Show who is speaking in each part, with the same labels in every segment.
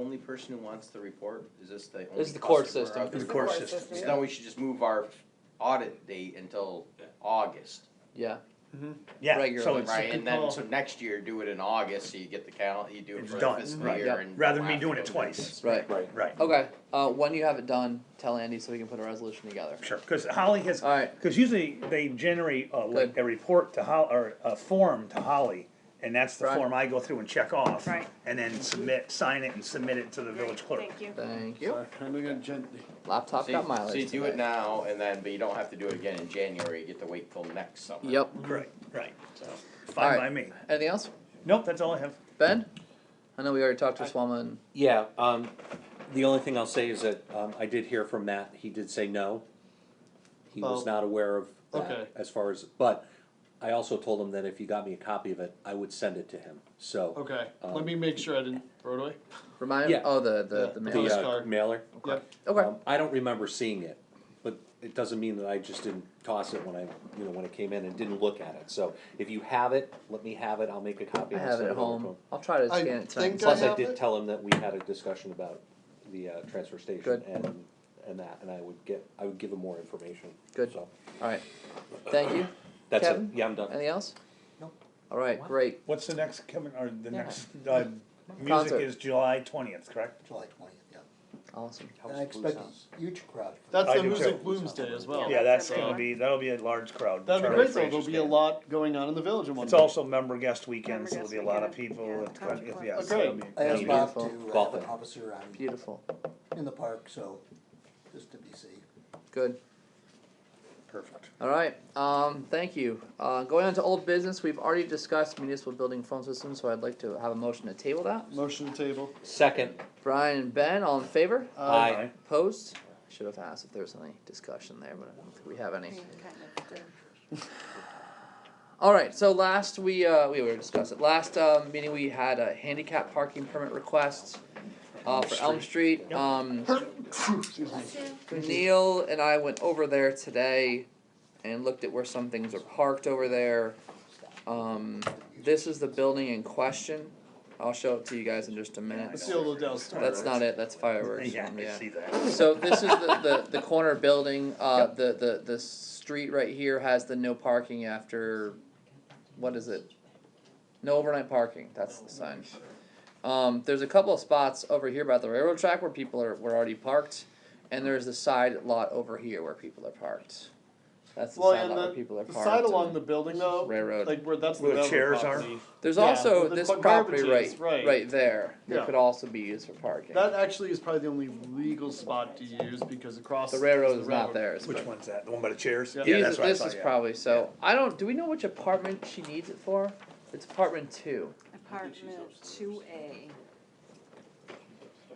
Speaker 1: only person who wants the report? Is this the only?
Speaker 2: This is the court
Speaker 1: customer
Speaker 2: system.
Speaker 1: out there?
Speaker 3: It's the court system.
Speaker 1: So then we should just move our audit date until August,
Speaker 2: Yeah.
Speaker 3: Yeah, so
Speaker 2: Regularly,
Speaker 3: it's.
Speaker 1: right? And then,
Speaker 3: well,
Speaker 1: so next year, do it in August, so you get the cal, you do it
Speaker 3: It's
Speaker 1: for the
Speaker 3: done,
Speaker 1: fiscal
Speaker 3: right.
Speaker 1: year
Speaker 2: Yep.
Speaker 1: and.
Speaker 3: Rather than me
Speaker 1: we'll
Speaker 3: doing
Speaker 1: have
Speaker 3: it
Speaker 1: to do
Speaker 3: twice,
Speaker 2: Right.
Speaker 4: Right.
Speaker 3: right,
Speaker 2: Okay. Uh, when you have it done, tell Andy so we can put a resolution together.
Speaker 3: sure, cause Holly has,
Speaker 2: All right.
Speaker 3: cause usually they generate a, like,
Speaker 2: Good.
Speaker 3: a report to Hol, or a form to Holly. And that's the
Speaker 2: Right.
Speaker 3: form I go through and check off.
Speaker 5: Right.
Speaker 3: And then submit, sign it and submit it to the village clerk.
Speaker 5: Thank you.
Speaker 2: Thank you.
Speaker 4: Kind of got gently.
Speaker 2: Laptop
Speaker 1: So you-
Speaker 2: got mileage.
Speaker 1: So you do
Speaker 2: today.
Speaker 1: it now and then, but you don't have to do it again in January, you get to wait till next summer.
Speaker 2: Yep.
Speaker 3: Correct, right, so,
Speaker 2: All
Speaker 3: fine
Speaker 2: right.
Speaker 3: by me.
Speaker 2: Anything else,
Speaker 3: Nope, that's all I have.
Speaker 2: Ben? I know we already talked to Swama and
Speaker 6: Yeah, um, the only thing I'll say is that, um, I did hear from Matt, he did say no. He was
Speaker 4: Oh.
Speaker 6: not aware of
Speaker 4: Okay.
Speaker 6: that as far as, but I also told him that if you got me a copy of it, I would send it to him, so.
Speaker 4: Okay,
Speaker 6: Um,
Speaker 4: let me make sure I didn't throw it away.
Speaker 2: remind.
Speaker 6: Yeah.
Speaker 2: Oh, the the, the
Speaker 4: The,
Speaker 2: mail.
Speaker 6: The uh,
Speaker 4: Postcard.
Speaker 6: mailer.
Speaker 4: Yep.
Speaker 2: okay.
Speaker 6: Um, I don't remember seeing it, but it doesn't mean that I just didn't toss it when I, you know, when it came in and didn't look at it, so if you have it, let me have it, I'll make a copy.
Speaker 2: I
Speaker 6: and I'll
Speaker 2: have
Speaker 6: send
Speaker 2: it at
Speaker 6: over to
Speaker 2: home.
Speaker 6: him.
Speaker 2: I'll try to
Speaker 4: I
Speaker 2: scan it tonight.
Speaker 4: think
Speaker 6: Plus, I
Speaker 4: have
Speaker 6: did
Speaker 4: it?
Speaker 6: tell him that we had a discussion about the, uh, transfer station
Speaker 2: Good.
Speaker 6: and, and that, and I would get, I would give him more information.
Speaker 2: Good.
Speaker 6: So,
Speaker 2: All right. Thank you.
Speaker 6: That's it,
Speaker 2: Kevin?
Speaker 6: yeah, I'm done.
Speaker 2: Anything else?
Speaker 6: No.
Speaker 2: All right.
Speaker 6: What?
Speaker 2: Great.
Speaker 3: What's the next coming, or the
Speaker 2: Yeah.
Speaker 3: next, uh,
Speaker 2: Concert.
Speaker 3: music is July twentieth, correct?
Speaker 7: July twentieth, yeah.
Speaker 2: Awesome.
Speaker 7: And I expect a huge crowd. for
Speaker 3: I
Speaker 4: That's the
Speaker 3: do
Speaker 4: Music
Speaker 3: too.
Speaker 4: Blooms Day as well.
Speaker 3: Yeah,
Speaker 5: Yeah,
Speaker 3: that's
Speaker 5: that's
Speaker 3: gonna
Speaker 5: everyone.
Speaker 3: be, that'll be a large crowd.
Speaker 4: That'd be
Speaker 3: Charlie
Speaker 4: great though, there'll
Speaker 3: Frazier's
Speaker 4: be a
Speaker 3: band.
Speaker 4: lot going on in the village in one
Speaker 3: It's
Speaker 4: day.
Speaker 3: also member guest weekend, so there'll
Speaker 5: Member
Speaker 3: be a
Speaker 5: guest
Speaker 3: lot of
Speaker 5: weekend,
Speaker 3: people,
Speaker 5: yeah,
Speaker 3: at-
Speaker 5: country
Speaker 3: yeah,
Speaker 5: club.
Speaker 3: yeah,
Speaker 4: Okay.
Speaker 3: so it'll be-
Speaker 7: I asked Bob to
Speaker 2: Beautiful.
Speaker 7: have an officer on,
Speaker 2: Beautiful.
Speaker 7: in the park, so, just to be safe.
Speaker 2: Good.
Speaker 3: perfect.
Speaker 2: All right, um, thank you. Uh, going on to old business, we've already discussed municipal building phone system, so I'd like to have a motion to table that.
Speaker 4: Motion to table.
Speaker 6: Second,
Speaker 2: Brian and Ben, all in favor?
Speaker 7: Uh,
Speaker 6: aye.
Speaker 2: Opposed? Should have asked if there was any discussion there, but I don't think we have any. All right, so last we, uh, we were discussing, last, uh, meeting we had a handicap parking permit request, uh, for Elm Street, um.
Speaker 4: Excuse me.
Speaker 2: Neil and I went over there today and looked at where some things are parked over there. Um, this is the building in question. I'll show it to you guys in just a
Speaker 4: Let's
Speaker 2: minute.
Speaker 4: see a little downstairs.
Speaker 2: That's not it, that's fireworks.
Speaker 3: Yeah, I
Speaker 2: Yeah.
Speaker 3: see that.
Speaker 2: So this is the, the, the corner building, uh, the, the, the street right here has the no parking after, what is it? No overnight parking, that's the sign. Um, there's a couple of spots over here by the railroad track where people are, were already parked, and there's the side lot over here where people are parked. That's the
Speaker 4: Well,
Speaker 2: side
Speaker 4: and
Speaker 2: lot where
Speaker 4: the,
Speaker 2: people are
Speaker 4: the
Speaker 2: parked.
Speaker 4: side along
Speaker 2: and
Speaker 4: the building though,
Speaker 2: Railroad.
Speaker 4: like where that's the
Speaker 3: Where the
Speaker 4: railroad
Speaker 3: chairs are.
Speaker 4: property.
Speaker 2: There's
Speaker 4: yeah,
Speaker 2: also
Speaker 4: where the
Speaker 2: this
Speaker 4: garbage
Speaker 2: property
Speaker 4: is,
Speaker 2: right,
Speaker 4: right.
Speaker 2: right there, that
Speaker 4: Yeah.
Speaker 2: could also be used for parking.
Speaker 4: That actually is probably the only legal spot to use because across.
Speaker 2: The railroad
Speaker 4: the
Speaker 2: is not
Speaker 4: railroad.
Speaker 2: there, it's
Speaker 3: Which one's that? The one by the chairs?
Speaker 4: Yeah.
Speaker 2: These-
Speaker 3: that's what I
Speaker 2: this
Speaker 3: thought,
Speaker 2: is
Speaker 3: yeah.
Speaker 2: probably so. I don't. Do we know which apartment she needs it for? It's apartment two.
Speaker 5: Apartment two A.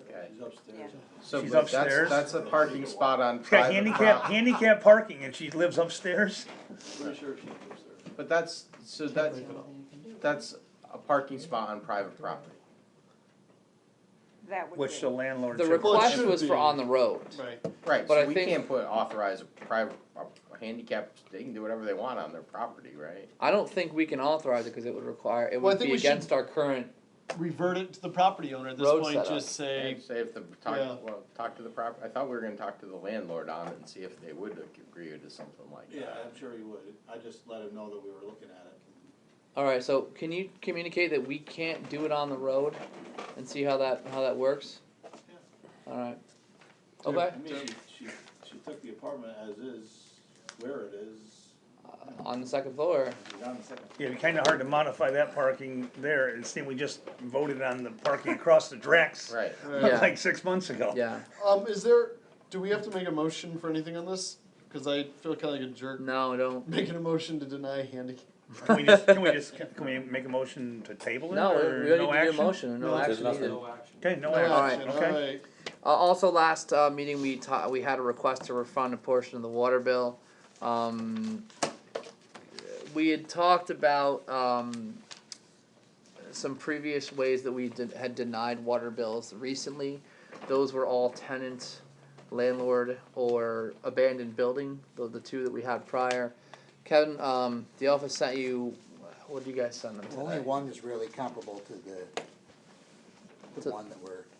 Speaker 1: Okay.
Speaker 7: He's upstairs.
Speaker 1: So
Speaker 3: She's
Speaker 1: but that's,
Speaker 3: upstairs.
Speaker 1: that's a parking spot on
Speaker 3: She's got
Speaker 1: private
Speaker 3: handicap,
Speaker 1: property.
Speaker 3: handicap parking and she lives upstairs?
Speaker 7: Pretty sure she lives there.
Speaker 1: But that's, so that, that's a parking spot on private property.
Speaker 5: That would be.
Speaker 3: Which uh, the landlord
Speaker 2: The
Speaker 3: should.
Speaker 2: request
Speaker 4: should
Speaker 2: was
Speaker 4: be.
Speaker 2: for on the road.
Speaker 4: Right.
Speaker 1: Right,
Speaker 2: But
Speaker 1: so
Speaker 2: I
Speaker 1: we
Speaker 2: think-
Speaker 1: can't put authorize a private, a handicap, they can do whatever they want on their property, right?
Speaker 2: I don't think we can authorize it because it would require it
Speaker 4: Well, I
Speaker 2: would
Speaker 4: think
Speaker 2: be
Speaker 4: we should-
Speaker 2: against our current.
Speaker 4: Revert it to the property owner at this
Speaker 2: Road
Speaker 4: point,
Speaker 2: setup.
Speaker 4: just say,
Speaker 1: And Say if the, talk,
Speaker 4: Yeah.
Speaker 1: well, talk to the prop, I thought we were gonna talk to the landlord on it and see if they would agree to something like
Speaker 8: Yeah,
Speaker 1: that.
Speaker 8: I'm sure he would. I just let him know that we were looking at it.
Speaker 2: All right. So can you communicate that we can't do it on the road, and see how that how that works? All right. Okay.
Speaker 8: I mean, she, she, she took the apartment as is, where it is,
Speaker 2: On the second floor.
Speaker 8: it's on the second.
Speaker 3: Yeah, it'd be kinda hard to modify that parking there and see, we just voted on the parking across the Drex
Speaker 1: Right,
Speaker 2: Yeah.
Speaker 3: like six months ago.
Speaker 2: Yeah.
Speaker 4: um, is there, do we have to make a motion for anything on this? Cause I feel kinda like a jerk
Speaker 2: No, don't.
Speaker 4: making a motion to deny handicap.
Speaker 3: Can we just, can we just, can we make a motion to table it
Speaker 2: No, we
Speaker 3: or
Speaker 2: we don't
Speaker 3: no
Speaker 2: need to do a
Speaker 3: action?
Speaker 2: motion. No,
Speaker 4: No,
Speaker 2: action
Speaker 6: there's nothing.
Speaker 2: needed.
Speaker 3: Okay, no
Speaker 4: No
Speaker 3: action,
Speaker 4: action,
Speaker 3: okay.
Speaker 4: alright.
Speaker 2: Uh, also, last uh, meeting we ta- we had a request to refund a portion of the water bill. Um, we had talked about um, some previous ways that we did, had denied water bills recently. Those were all tenant, landlord, or abandoned building. The, the two that we had prior. Kevin, um, the office sent you. What did you guys send them?
Speaker 7: Only
Speaker 2: Today?
Speaker 7: one is really comparable to the,
Speaker 2: To-
Speaker 7: the one that we're